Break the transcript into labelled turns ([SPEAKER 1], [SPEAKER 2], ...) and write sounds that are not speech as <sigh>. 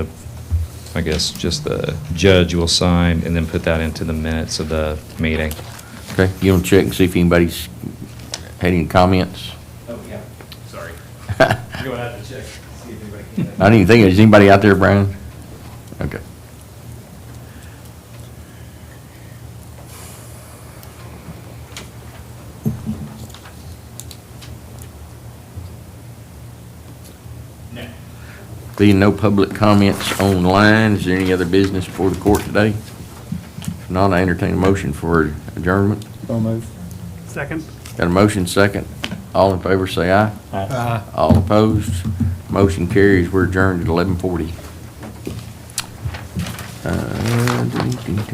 [SPEAKER 1] I guess, just the judge will sign and then put that into the minutes of the meeting.
[SPEAKER 2] Okay, you want to check and see if anybody's had any comments? <laughs>
[SPEAKER 3] Oh, yeah, sorry.
[SPEAKER 2] I
[SPEAKER 3] Go out to check, see if anybody came back.
[SPEAKER 2] didn't even think, is anybody out there, Brian? Okay.
[SPEAKER 3] No.
[SPEAKER 2] Being no public comments online, is there any other business before the court today? If not, I entertain a motion for adjournment.
[SPEAKER 4] So moved.
[SPEAKER 5] Second.
[SPEAKER 2] Got a motion second. All in favor, say aye.
[SPEAKER 4] Aye.
[SPEAKER 2] All opposed, motion carries. We're adjourned at 11:40. Uh,